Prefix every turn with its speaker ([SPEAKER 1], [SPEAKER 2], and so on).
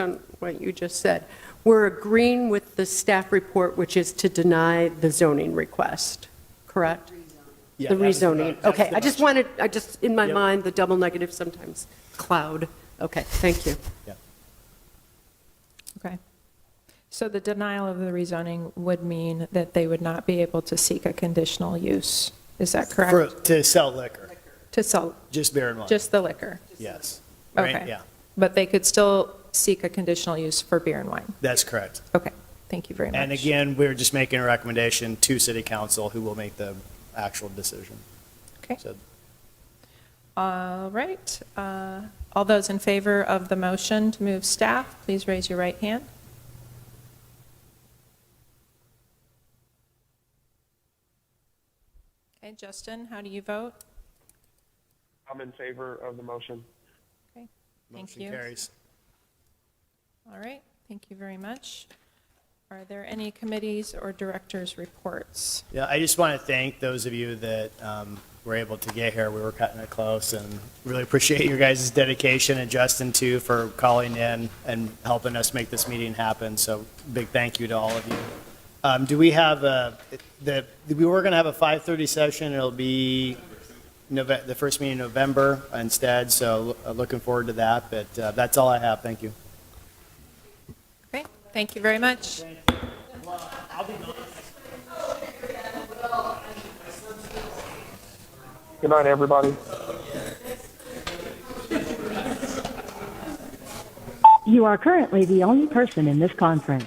[SPEAKER 1] on what you just said. We're agreeing with the staff report, which is to deny the zoning request, correct?
[SPEAKER 2] Yeah,
[SPEAKER 1] The
[SPEAKER 2] that was the-
[SPEAKER 1] rezoning,
[SPEAKER 2] that's
[SPEAKER 1] okay.
[SPEAKER 2] the
[SPEAKER 1] I just
[SPEAKER 2] motion.
[SPEAKER 1] wanted, I just, in my
[SPEAKER 2] Yep.
[SPEAKER 1] mind, the double negative sometimes cloud. Okay, thank you.
[SPEAKER 2] Yeah.
[SPEAKER 3] Okay. So the denial of the rezoning would mean that they would not be able to seek a conditional use, is that
[SPEAKER 2] For,
[SPEAKER 3] correct?
[SPEAKER 2] to sell liquor,
[SPEAKER 3] To sell
[SPEAKER 2] just bear in mind,
[SPEAKER 3] just the liquor,
[SPEAKER 2] yes. Right,
[SPEAKER 3] okay.
[SPEAKER 2] yeah,
[SPEAKER 3] but they could still seek a conditional use for beer and wine.
[SPEAKER 2] that's correct.
[SPEAKER 3] Okay, thank you very much.
[SPEAKER 2] And again, we're just making a recommendation to city council, who will make the actual decision.
[SPEAKER 3] Okay.
[SPEAKER 2] So
[SPEAKER 3] All right, uh, all those in favor of the motion to move staff, please raise your right hand. Okay, Justin, how do you vote?
[SPEAKER 4] I'm in favor of the motion.
[SPEAKER 3] Okay, thank
[SPEAKER 2] motion
[SPEAKER 3] you.
[SPEAKER 2] carries.
[SPEAKER 3] All right, thank you very much. Are there any committees or directors' reports?
[SPEAKER 2] Yeah, I just want to thank those of you that um, were able to get here. We were cutting it close and really appreciate your guys' dedication and Justin too for calling in and helping us make this meeting happen. So big thank you to all of you. Um, Do we have uh, the, we were going to have a 5:30 session. It'll be Nove, the first meeting in November instead, so uh, looking forward to that. But uh, that's all I have. Thank you.
[SPEAKER 3] Okay, thank you very much.
[SPEAKER 4] Good night, everybody.
[SPEAKER 5] You are currently the only person in this conference.